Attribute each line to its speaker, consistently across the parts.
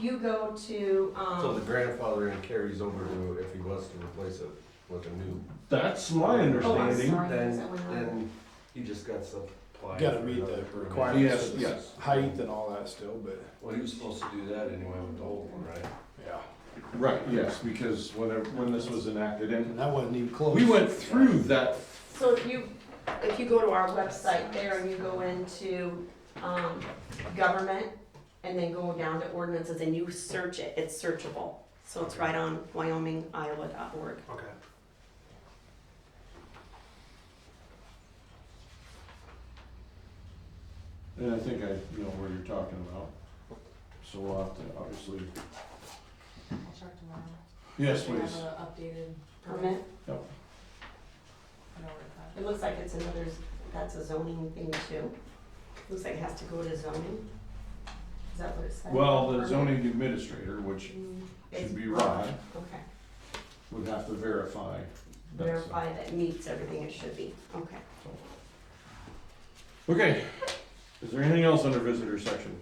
Speaker 1: You go to,
Speaker 2: So
Speaker 1: um,
Speaker 2: the grandfathering carries over to if he was to replace it with a new,
Speaker 3: That's my
Speaker 1: oh, I'm
Speaker 3: understanding.
Speaker 1: sorry,
Speaker 2: Then-
Speaker 1: is that one on?
Speaker 2: then he just got supplied.
Speaker 4: Gotta
Speaker 2: for
Speaker 4: meet
Speaker 2: another
Speaker 4: the
Speaker 2: permit.
Speaker 4: requirements
Speaker 3: Yes,
Speaker 4: of the
Speaker 3: yes.
Speaker 4: height and all that still, but,
Speaker 2: Well, he was supposed to do that anyway with the old one, right?
Speaker 4: yeah,
Speaker 3: Right, yes, because whenever, when this was enacted, and
Speaker 4: and that wasn't even close.
Speaker 3: we went through that,
Speaker 1: So if you, if you go to our website there and you go into, um, government and then go down to ordinances and you search it, it's searchable. So it's right on wyomingiowa.org.
Speaker 4: Okay.
Speaker 3: and I think I, you know, where you're talking about. So we'll have to, obviously,
Speaker 5: I'll check tomorrow.
Speaker 3: yes,
Speaker 5: We have
Speaker 3: please.
Speaker 5: an updated
Speaker 1: Permit,
Speaker 5: I know where it's at.
Speaker 1: it looks like it's another, that's a zoning thing too. Looks like it has to go to zoning. Is that what it said?
Speaker 3: Well, the
Speaker 1: Permit?
Speaker 3: zoning administrator, which
Speaker 1: Mm, it's-
Speaker 3: should be Rod,
Speaker 1: Okay,
Speaker 3: would have to verify. uh, that, so.
Speaker 1: verify that meets everything it should be, okay.
Speaker 3: Okay, is there anything else under visitor section?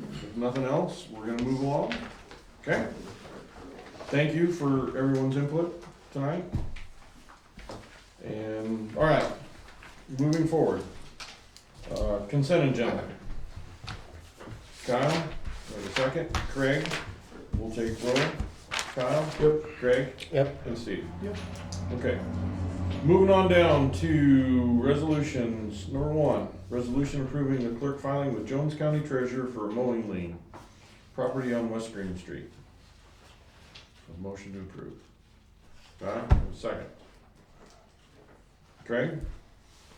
Speaker 3: If nothing else, we're gonna move along, okay? Thank you for everyone's input tonight. And, all right, moving forward. Uh, consent agenda. Kyle, wait a second, Craig, we'll take roll. Kyle? Yep. Craig?
Speaker 4: Yep.
Speaker 3: And Steve?
Speaker 4: Yep.
Speaker 3: Okay. Moving on down to resolutions, number one, resolution approving the clerk filing with Jones County Treasurer for a mowing lien, property on West Green Street. A motion to approve. Kyle, second. Craig?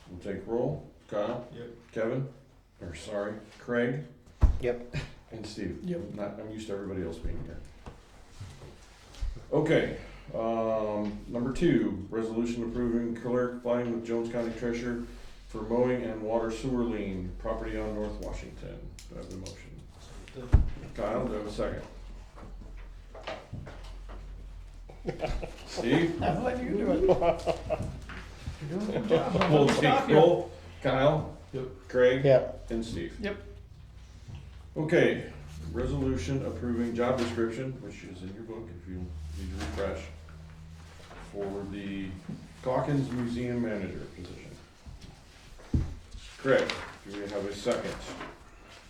Speaker 3: We'll take roll. Kyle?
Speaker 4: Yep.
Speaker 3: Kevin? Or sorry, Craig?
Speaker 4: Yep.
Speaker 3: And Steve?
Speaker 4: Yep.
Speaker 3: Not, I'm used to everybody else being here. Okay, um, number two, resolution approving clerk filing with Jones County Treasurer for mowing and water sewer lien, property on North Washington. Do I have a motion? Kyle, do I have a second? Steve?
Speaker 4: I'm letting you do it. You're doing a good job.
Speaker 3: We'll take roll. Kyle?
Speaker 4: Yep.
Speaker 3: Craig?
Speaker 4: Yeah.
Speaker 3: And Steve?
Speaker 4: Yep.
Speaker 3: Okay, resolution approving job description, which is in your book if you need to refresh, for the Hawkins Museum Manager position. Correct. Do we have a second?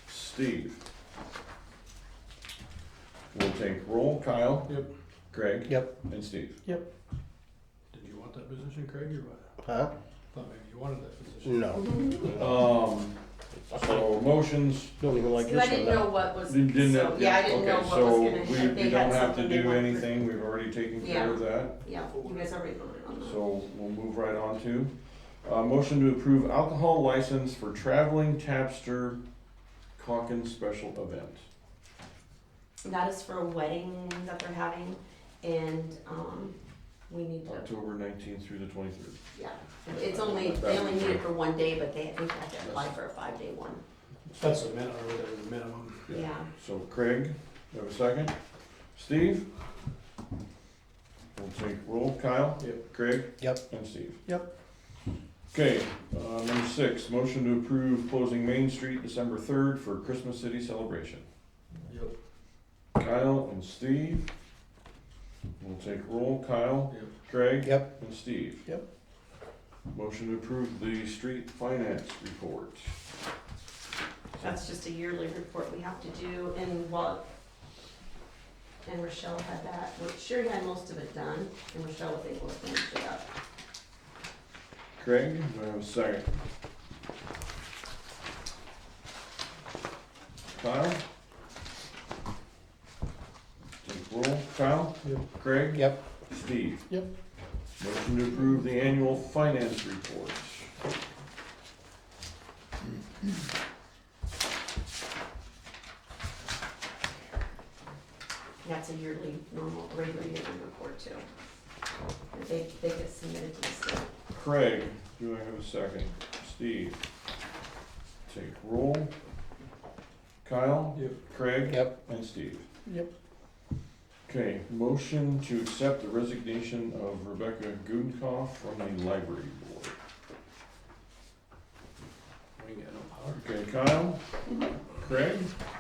Speaker 3: Steve? We'll take roll. Kyle?
Speaker 4: Yep.
Speaker 3: Craig?
Speaker 6: Yep.
Speaker 3: And Steve?
Speaker 4: Did you want that position, Craig, or what?
Speaker 6: Huh?
Speaker 4: Thought maybe you wanted that position.
Speaker 6: No.
Speaker 3: Um, so motions,
Speaker 6: Don't even like
Speaker 1: So I
Speaker 6: this one.
Speaker 1: didn't know what was,
Speaker 3: You didn't
Speaker 1: so,
Speaker 3: have-
Speaker 1: yeah, I didn't know
Speaker 3: okay,
Speaker 1: what
Speaker 3: so
Speaker 1: was
Speaker 3: we,
Speaker 1: gonna, if
Speaker 3: we
Speaker 1: they
Speaker 3: don't
Speaker 1: had
Speaker 3: have to
Speaker 1: something they
Speaker 3: do
Speaker 1: wanted.
Speaker 3: anything, we've already taken care of that,
Speaker 1: Yeah, you guys already voted on that.
Speaker 3: so we'll move right on to. Uh, motion to approve alcohol license for traveling tapster Hawkins special event.
Speaker 1: That is for a wedding that they're having, and, um, we need to,
Speaker 3: October nineteenth through the twenty-third.
Speaker 1: yeah, it's only, they only need it for one day, but they, I think they have to apply for a five-day one,
Speaker 4: That's the minimum, or whatever the minimum.
Speaker 3: Yeah.
Speaker 1: yeah.
Speaker 3: So Craig, you have a second? Steve? We'll take roll. Kyle?
Speaker 4: Yep.
Speaker 3: Craig?
Speaker 6: Yep.
Speaker 3: And Steve?
Speaker 6: Yep.
Speaker 3: Okay, uh, number six, motion to approve closing Main Street December third for Christmas City celebration.
Speaker 4: Yep.
Speaker 3: Kyle and Steve. We'll take roll. Kyle?
Speaker 4: Yep.
Speaker 3: Craig?
Speaker 6: Yep.
Speaker 3: And Steve?
Speaker 6: Yep.
Speaker 3: Motion to approve the street finance report.
Speaker 1: That's just a yearly report we have to do, and what, and Rochelle had that, well, Sherry had most of it done, and Rochelle was able to finish it up.
Speaker 3: Craig, do I have a second? Kyle? Take roll, Kyle?
Speaker 4: Yep.
Speaker 3: Craig?
Speaker 6: Yep.
Speaker 3: Steve?
Speaker 6: Yep.
Speaker 3: Motion to approve the annual finance report.
Speaker 1: That's a yearly, normal, regular yearly report too. They, they get submitted to the state.
Speaker 3: Craig, do I have a second? Steve? Take roll. Kyle?
Speaker 4: Yep.
Speaker 3: Craig?
Speaker 6: Yep.
Speaker 3: And Steve?
Speaker 6: Yep.
Speaker 3: Okay, motion to accept the resignation of Rebecca Gudenkauf from the library board.
Speaker 4: We ain't got no power.
Speaker 3: Okay, Kyle? Craig?